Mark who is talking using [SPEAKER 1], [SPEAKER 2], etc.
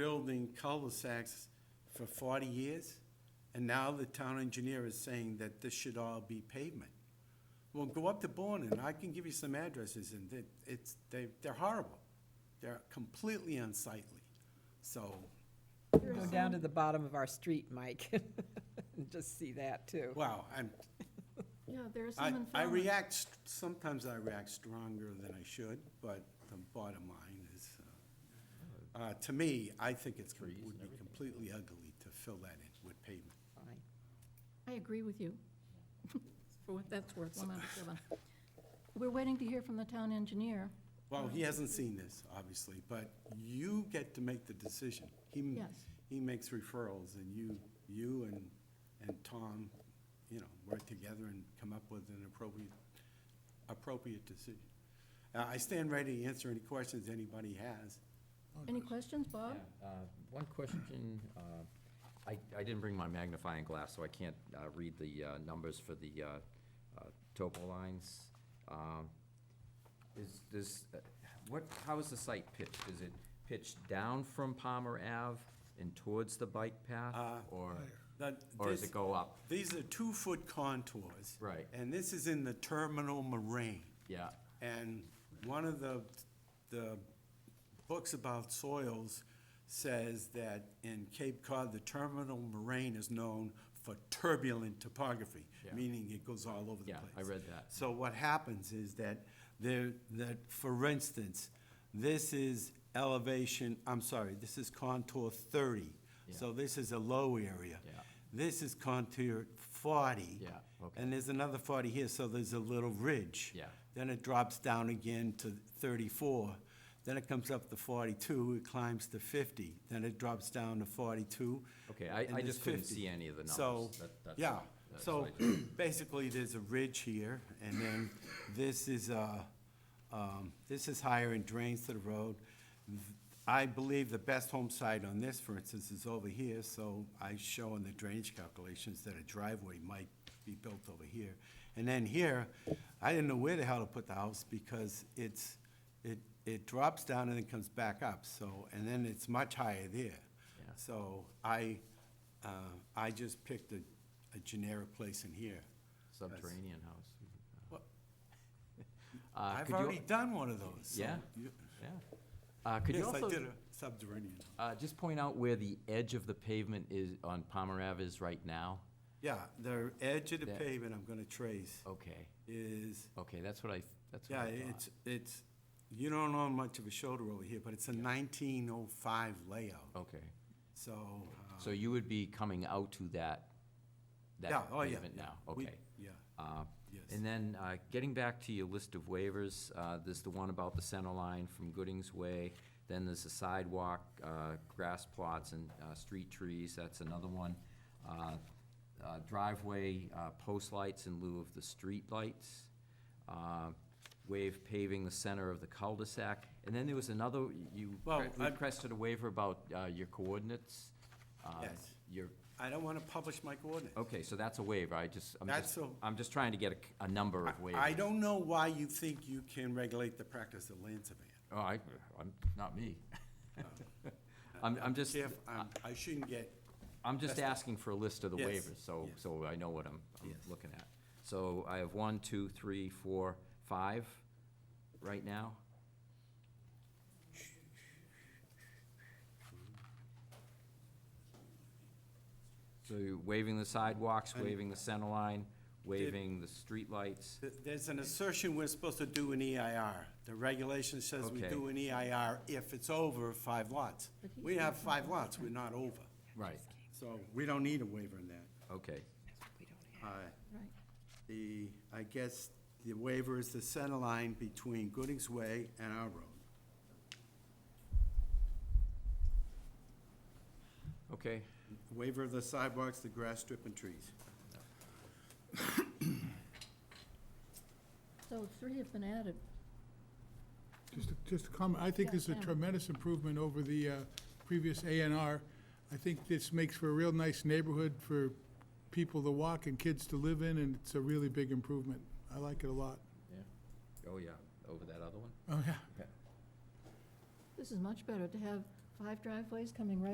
[SPEAKER 1] building cul-de-sacs for forty years, and now the town engineer is saying that this should all be pavement. Well, go up to Bourne, and I can give you some addresses, and it, it's, they, they're horrible. They're completely unsightly, so,
[SPEAKER 2] Go down to the bottom of our street, Mike, and just see that too.
[SPEAKER 1] wow, I'm,
[SPEAKER 3] Yeah, there are
[SPEAKER 1] I,
[SPEAKER 3] some in
[SPEAKER 1] I
[SPEAKER 3] Falmouth.
[SPEAKER 1] react, st- sometimes I react stronger than I should, but the bottom line is, uh, uh, to me, I think it's, com- would be completely ugly to fill that in with pavement.
[SPEAKER 2] Fine.
[SPEAKER 3] I agree with you. For what that's worth, one out of seven. We're waiting to hear from the town engineer.
[SPEAKER 1] Well, he hasn't seen this, obviously, but you get to make the decision. He, m-
[SPEAKER 3] Yes.
[SPEAKER 1] he makes referrals, and you, you and, and Tom, you know, work together and come up with an appropriate, appropriate decision. Uh, I stand ready to answer any questions anybody has.
[SPEAKER 3] Any questions, Bob?
[SPEAKER 4] Yeah, uh, One question, uh, I, I didn't bring my magnifying glass, so I can't uh, read the uh, numbers for the uh, uh, topo lines. Um, Is this, uh, what, how is the site pitched? Is it pitched down from Palmer Ave and towards the bike path? Or,
[SPEAKER 1] That-
[SPEAKER 4] or does
[SPEAKER 1] Uh, this-
[SPEAKER 4] it go up?
[SPEAKER 1] These are two-foot contours.
[SPEAKER 4] Right.
[SPEAKER 1] And this is in the terminal moraine.
[SPEAKER 4] Yeah,
[SPEAKER 1] And one of the, the books about soils says that in Cape Cod, the terminal moraine is known for turbulent topography,
[SPEAKER 4] Yeah.
[SPEAKER 1] meaning it goes all over the
[SPEAKER 4] Yeah,
[SPEAKER 1] place.
[SPEAKER 4] I read that.
[SPEAKER 1] So what happens is that there, that, for instance, this is elevation, I'm sorry, this is contour thirty. So this is a low area.
[SPEAKER 4] Yeah.
[SPEAKER 1] This is contour forty.
[SPEAKER 4] Yeah, okay.
[SPEAKER 1] And there's another forty here, so there's a little ridge.
[SPEAKER 4] Yeah.
[SPEAKER 1] Then it drops down again to thirty-four. Then it comes up to forty-two, it climbs to fifty. Then it drops down to forty-two.
[SPEAKER 4] Okay, I-
[SPEAKER 1] and
[SPEAKER 4] I
[SPEAKER 1] there's
[SPEAKER 4] just couldn't
[SPEAKER 1] 50.
[SPEAKER 4] see any of the numbers.
[SPEAKER 1] So,
[SPEAKER 4] That- that's-
[SPEAKER 1] yeah,
[SPEAKER 4] that's
[SPEAKER 1] so
[SPEAKER 4] what I
[SPEAKER 1] basically, there's a ridge here, and then this is, uh, um, this is higher and drains to the road. I believe the best home site on this, for instance, is over here, so I show in the drainage calculations that a driveway might be built over here. And then here, I didn't know where the hell to put the house, because it's, it, it drops down and then comes back up, so, and then it's much higher there.
[SPEAKER 4] Yeah.
[SPEAKER 1] So I, uh, I just picked a, a generic place in here.
[SPEAKER 4] subterranean house.
[SPEAKER 1] Well-
[SPEAKER 4] Uh,
[SPEAKER 1] I've
[SPEAKER 4] could you-
[SPEAKER 1] already done one of those. so
[SPEAKER 4] Yeah?
[SPEAKER 1] you-
[SPEAKER 4] Yeah. Uh, Could you
[SPEAKER 1] Yes, I
[SPEAKER 4] also
[SPEAKER 1] did a subterranean.
[SPEAKER 4] Uh, just point out where the edge of the pavement is on Palmer Ave is right now.
[SPEAKER 1] Yeah, the edge of the
[SPEAKER 4] That-
[SPEAKER 1] pavement I'm gonna trace
[SPEAKER 4] Okay,
[SPEAKER 1] is,
[SPEAKER 4] okay, that's what I, that's what
[SPEAKER 1] yeah,
[SPEAKER 4] I thought.
[SPEAKER 1] it's, it's, you don't own much of a shoulder over here, but it's a nineteen oh five layout,
[SPEAKER 4] Okay,
[SPEAKER 1] so. uh,
[SPEAKER 4] so you would be coming out to that,
[SPEAKER 1] yeah,
[SPEAKER 4] that
[SPEAKER 1] oh, yeah,
[SPEAKER 4] pavement
[SPEAKER 1] yeah,
[SPEAKER 4] now,
[SPEAKER 1] we-
[SPEAKER 4] okay.
[SPEAKER 1] Yeah,
[SPEAKER 4] Uh,
[SPEAKER 1] yes.
[SPEAKER 4] And then, uh, getting back to your list of waivers, uh, there's the one about the center line from Goodings Way, then there's the sidewalk, uh, grass plots and uh, street trees, that's another one. Uh, uh, Driveway uh, post lights in lieu of the street lights. Uh, Wave paving the center of the cul-de-sac. And then there was another, you
[SPEAKER 1] Well, I-
[SPEAKER 4] requested a waiver about uh, your coordinates. uh,
[SPEAKER 1] Yes.
[SPEAKER 4] Your,
[SPEAKER 1] I don't wanna publish my coordinates.
[SPEAKER 4] okay, so that's a waiver, I just, I'm
[SPEAKER 1] That's
[SPEAKER 4] just,
[SPEAKER 1] a-
[SPEAKER 4] I'm just trying to get a c- a, number of waivers.
[SPEAKER 1] I don't know why you think you can regulate the practice of land surveying.
[SPEAKER 4] Oh, I, I'm, not me. I'm, I'm just,
[SPEAKER 1] Jeff, I'm- I shouldn't get,
[SPEAKER 4] I'm just asking for a list of the
[SPEAKER 1] Yes,
[SPEAKER 4] waivers, so,
[SPEAKER 1] yes.
[SPEAKER 4] so I know what I'm, I'm
[SPEAKER 1] Yes.
[SPEAKER 4] looking at. So I have one, two, three, four, five right now. So you're waiving the sidewalks, waiving the center line, waiving the streetlights.
[SPEAKER 1] th- there's an assertion we're supposed to do an EIR. The regulation says we
[SPEAKER 4] Okay.
[SPEAKER 1] do an EIR if it's over five lots.
[SPEAKER 3] But he's
[SPEAKER 1] We have five lots, we're not over.
[SPEAKER 4] Right,
[SPEAKER 1] So we don't need a waiver in that.
[SPEAKER 4] okay.
[SPEAKER 1] Uh,
[SPEAKER 3] Right.
[SPEAKER 1] The, I guess, the waiver is the center line between Goodings Way and our road.
[SPEAKER 4] Okay,
[SPEAKER 1] Waiver of the sidewalks, the grass strip and trees.
[SPEAKER 3] So three have been added.
[SPEAKER 5] Just, a- just a comment, I think
[SPEAKER 3] Yeah,
[SPEAKER 5] this is a
[SPEAKER 3] Sam.
[SPEAKER 5] tremendous improvement over the uh, previous A and R. I think this makes for a real nice neighborhood for people to walk and kids to live in, and it's a really big improvement. I like it a lot.
[SPEAKER 4] yeah. Oh, yeah, over that other one?
[SPEAKER 5] Oh, yeah.
[SPEAKER 3] This is much better to have five driveways coming right